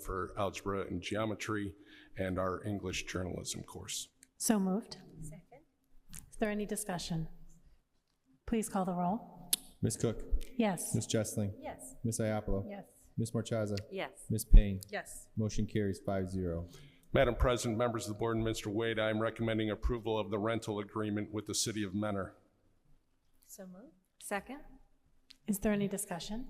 for algebra and geometry and our English journalism course. So moved. Second. Is there any discussion? Please call the roll. Ms. Cook. Yes. Ms. Jessling. Yes. Ms. Iapolo. Yes. Ms. Marchaza. Yes. Ms. Payne. Yes. Motion carries five zero. Madam President, members of the board, and Mr. Wade, I am recommending approval of the rental agreement with the city of Mentor. So moved. Second? Is there any discussion?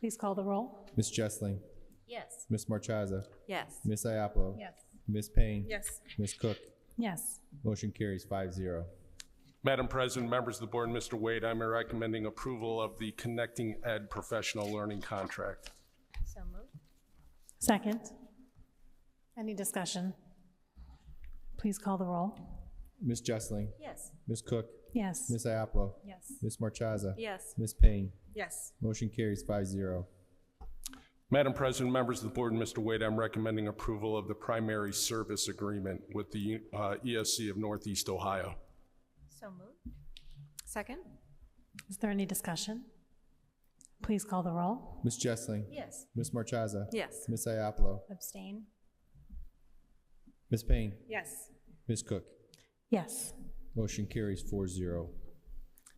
Please call the roll. Ms. Jessling. Yes. Ms. Marchaza. Yes. Ms. Iapolo. Yes. Ms. Payne. Yes. Ms. Cook. Yes. Motion carries five zero. Madam President, members of the board, and Mr. Wade, I'm recommending approval of the Connecting Ed Professional Learning Contract. So moved. Second. Any discussion? Please call the roll. Ms. Jessling. Yes. Ms. Cook. Yes. Ms. Iapolo. Yes. Ms. Marchaza. Yes. Ms. Payne. Yes. Motion carries five zero. Madam President, members of the board, and Mr. Wade, I'm recommending approval of the primary service agreement with the uh, ESC of Northeast Ohio. So moved. Second? Is there any discussion? Please call the roll. Ms. Jessling. Yes. Ms. Marchaza. Yes. Ms. Iapolo. Abstain. Ms. Payne. Yes. Ms. Cook. Yes. Motion carries four zero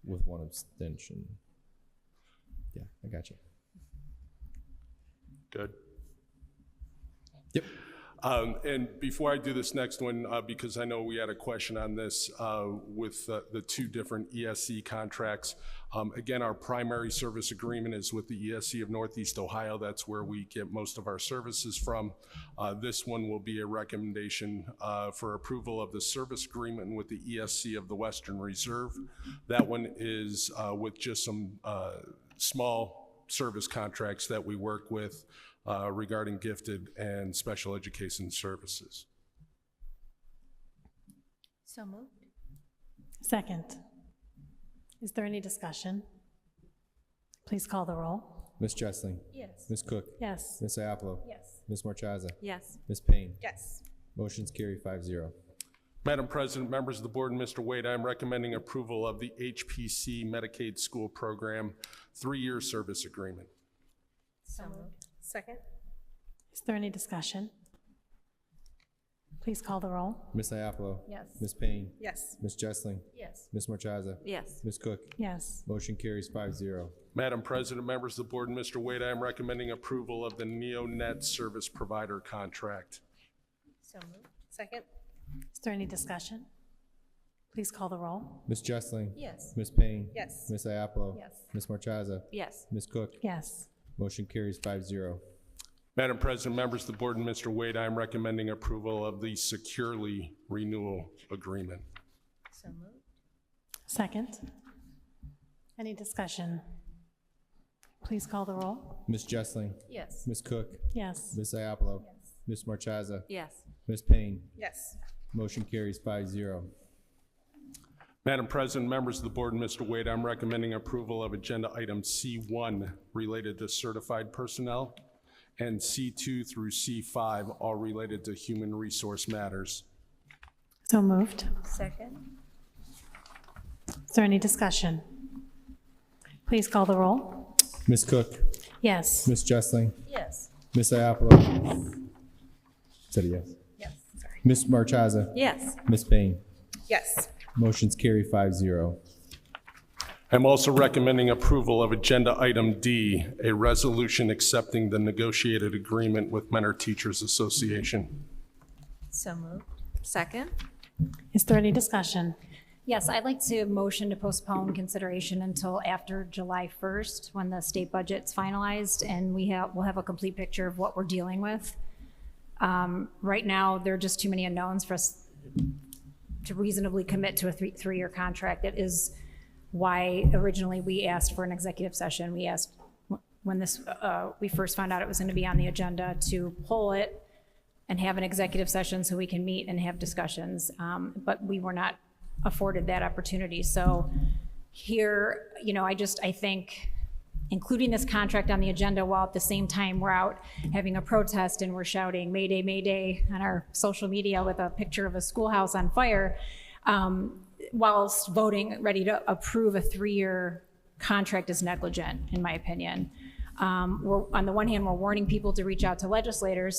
with one abstention. Yeah, I got you. Good. Yep. Um, And before I do this next one, uh, because I know we had a question on this uh, with uh, the two different ESC contracts, um, again, our primary service agreement is with the ESC of Northeast Ohio. That's where we get most of our services from. Uh, This one will be a recommendation uh, for approval of the service agreement with the ESC of the Western Reserve. That one is uh, with just some uh, small service contracts that we work with uh, regarding gifted and special education services. So moved. Second. Is there any discussion? Please call the roll. Ms. Jessling. Yes. Ms. Cook. Yes. Ms. Iapolo. Yes. Ms. Marchaza. Yes. Ms. Payne. Yes. Motion's carry five zero. Madam President, members of the board, and Mr. Wade, I am recommending approval of the HPC Medicaid School Program three-year service agreement. So moved. Second? Is there any discussion? Please call the roll. Ms. Iapolo. Yes. Ms. Payne. Yes. Ms. Jessling. Yes. Ms. Marchaza. Yes. Ms. Cook. Yes. Motion carries five zero. Madam President, members of the board, and Mr. Wade, I am recommending approval of the NeoNet Service Provider Contract. So moved. Second? Is there any discussion? Please call the roll. Ms. Jessling. Yes. Ms. Payne. Yes. Ms. Iapolo. Yes. Ms. Marchaza. Yes. Ms. Cook. Yes. Motion carries five zero. Madam President, members of the board, and Mr. Wade, I am recommending approval of the Securely Renewal Agreement. So moved. Second. Any discussion? Please call the roll. Ms. Jessling. Yes. Ms. Cook. Yes. Ms. Iapolo. Ms. Marchaza. Yes. Ms. Payne. Yes. Motion carries five zero. Madam President, members of the board, and Mr. Wade, I'm recommending approval of Agenda Item C1 related to certified personnel, and C2 through C5 all related to human resource matters. So moved. Second? Is there any discussion? Please call the roll. Ms. Cook. Yes. Ms. Jessling. Yes. Ms. Iapolo. Is that a yes? Yes. Sorry. Ms. Marchaza. Yes. Ms. Payne. Yes. Motion's carry five zero. I'm also recommending approval of Agenda Item D, a resolution accepting the negotiated agreement with Mentor Teachers Association. So moved. Second? Is there any discussion? Yes, I'd like to motion to postpone consideration until after July 1st, when the state budget's finalized, and we have, we'll have a complete picture of what we're dealing with. Um, Right now, there are just too many unknowns for us to reasonably commit to a three, three-year contract. It is why originally we asked for an executive session. We asked, wh- when this, uh, we first found out it was going to be on the agenda, to pull it and have an executive session so we can meet and have discussions. Um, But we were not afforded that opportunity. So here, you know, I just, I think including this contract on the agenda while at the same time we're out having a protest and we're shouting Mayday, Mayday on our social media with a picture of a schoolhouse on fire, um, whilst voting, ready to approve a three-year contract is negligent, in my opinion. Um, We're, on the one hand, we're warning people to reach out to legislators